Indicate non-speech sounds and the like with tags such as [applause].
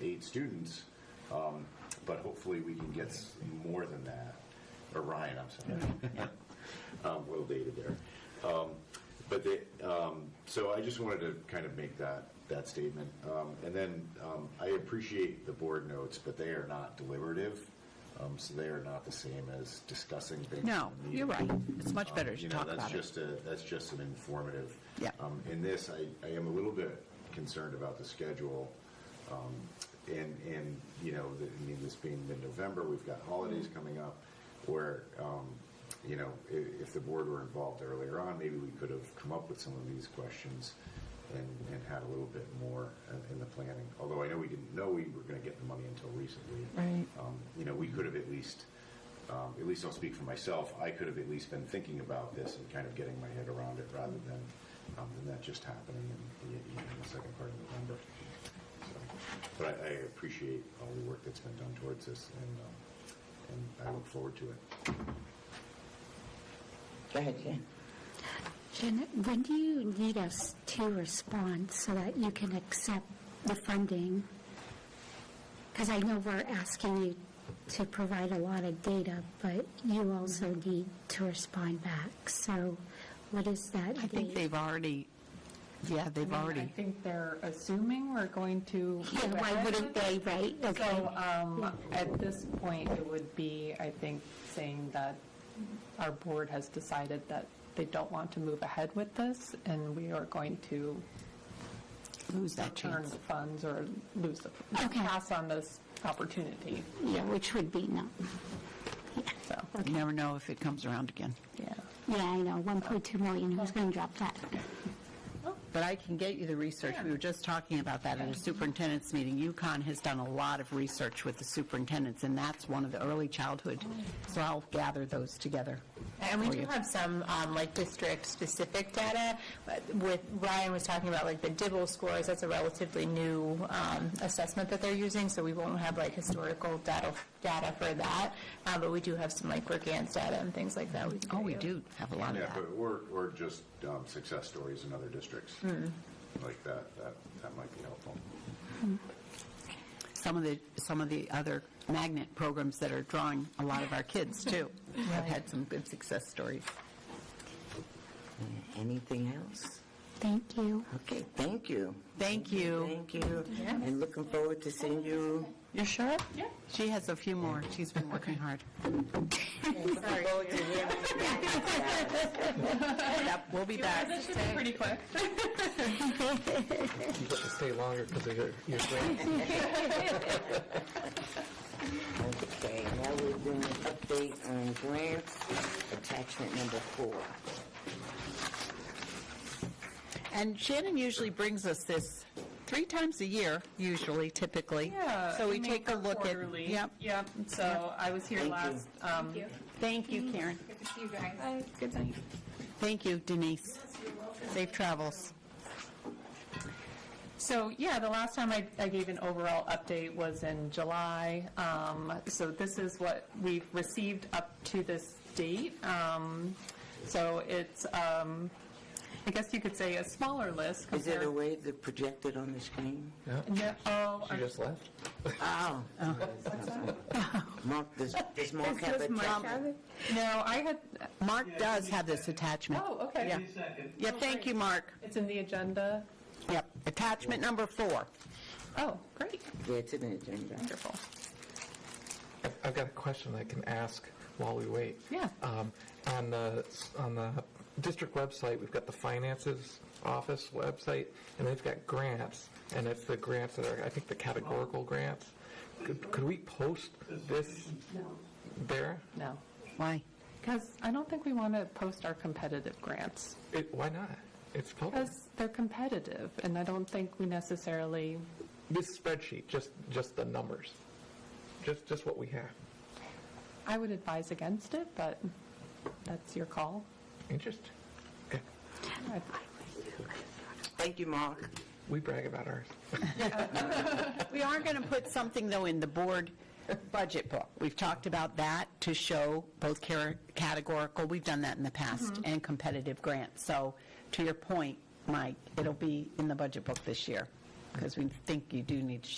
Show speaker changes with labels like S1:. S1: eight students, um, but hopefully we can get s- more than that. Or Ryan, I'm sorry. [laughs] Um, well dated there. Um, But they, um, so I just wanted to kind of make that, that statement. Um, And then um, I appreciate the board notes, but they are not deliberative, um, so they are not the same as discussing things.
S2: No,
S1: in the
S2: you're
S1: meeting.
S2: right. It's much better to
S1: You know,
S2: talk about
S1: That's
S2: it.
S1: just a, that's just an informative.
S2: Yeah.
S1: Um, In this, I, I am a little bit concerned about the schedule. um, And, and, you know, the- I mean, this being mid-November, we've got holidays
S2: Mm-hmm.
S1: coming up where, um, you know, if, if the board were involved earlier on, maybe we could have come up with some of these questions and, and had a little bit more uh, in- in the planning. Although I know we didn't know we were going to get the money until recently.
S2: Right.
S1: Um, You know, we could have at least, um, at least I'll speak for myself, I could have at least been thinking about this and kind of getting my head around it rather than, um, than that just happening in the, you know, in the second part of November. So, But I, I appreciate all the work that's been done towards this and, um, and I look forward to it.
S3: Go ahead, Jan.
S4: Janet, when do you need us to respond so that you can accept the funding? Because I know we're asking you to provide a lot of data, but you also need to respond back. So what is that
S2: I think
S4: date?
S2: they've already, yeah, they've
S5: I mean,
S2: already,
S5: I think they're assuming we're going to.
S4: Yeah, why wouldn't they, right? Okay.
S5: So um, at this point, it would be, I think, saying that our board has decided that they don't want to move ahead with this, and we are going to
S2: lose that
S5: return
S2: chance.
S5: the funds or lose the,
S4: Okay.
S5: pass on this opportunity,
S4: Yeah, which would be no.
S5: so,
S2: You never know if it comes around again.
S5: yeah.
S4: Yeah, I know, 1.2 million, who's going to drop that?
S6: But I can get you the research. We were just talking about that at a superintendent's meeting. UConn has done a lot of research with the superintendents, and that's one of the early childhood. So I'll gather those together.
S7: And we
S3: Oh,
S6: for
S7: do
S6: you.
S7: have some, um, like, district-specific data. but With, Ryan was talking about, like, the Dibble scores, that's a relatively new um, assessment that they're using, so we won't have, like, historical data, data for that. Uh, But we do have some, like, Mercant's data and things like that. we can
S2: Oh, we
S7: get you.
S2: do have a lot of
S1: Yeah,
S2: that.
S1: but, or, or just um, success stories in other districts. Like that, that, that might be helpful.
S6: Some of the, some of the other magnet programs that are drawing a lot of our
S2: [laughs]
S6: kids, too, have had some good success stories.
S3: Anything else?
S4: Thank you.
S3: Okay, thank you.
S6: Thank you.
S3: Thank you. And looking forward to seeing you.
S6: You're sure? Yeah. She has a few more. She's been working hard. Yep, we'll be back.
S5: Pretty quick.
S8: You get to stay longer because of your, your grant.
S3: Okay, now we're doing an update on grants, attachment number four.
S6: And Shannon usually brings us this three times a year, usually, typically.
S5: Yeah.
S6: So we
S5: Uh, make
S6: take a
S5: them
S6: look at.
S5: quarterly.
S6: Yep.
S5: Yep, so I was here
S3: Thank you.
S5: last, um,
S6: Thank you, Karen. Good to see you guys. Good night. Mm-hmm. Thank you, Denise. Safe travels.
S5: So, yeah, the last time I, I gave an overall update was in July. Um, so this is what we've received up to this date. Um, so it's, um, I guess you could say a smaller list
S3: Is it
S5: compared.
S3: a way to project it on the screen?
S5: No, oh,
S8: She
S5: I'm-
S8: just left.
S3: Oh. Mark, does, does Mark have a attachment?
S5: no, I had,
S6: Mark does have this attachment.
S5: oh, okay.
S6: Yeah. Yeah, thank you, Mark.
S5: It's in the agenda.
S6: Yep, attachment number four.
S5: Oh, great,
S3: Yeah, it's in the agenda.
S5: wonderful.
S8: I've- I've got a question I can ask while we wait.
S5: Yeah.
S8: Um, on the on the district website, we've got the finances office website, and they've got grants, and it's the grants that are I think the categorical grants. Could, could we post this there?
S5: No,
S6: Why?
S5: because I don't think we want to post our competitive grants.
S8: It, why not? It's public.
S5: Because they're competitive, and I don't think we necessarily
S8: This spreadsheet, just just the numbers, just just what we have.
S5: I would advise against it, but that's your call.
S8: Interesting. Okay.
S5: I-
S3: Thank you, Mark.
S8: We brag about ours.
S6: We are going to put something, though, in the board budget book. We've talked about that to show both care- categorical, we've done that in the past, and competitive grants. So to your point, Mike, it'll be in the budget book this year, because we think you do need to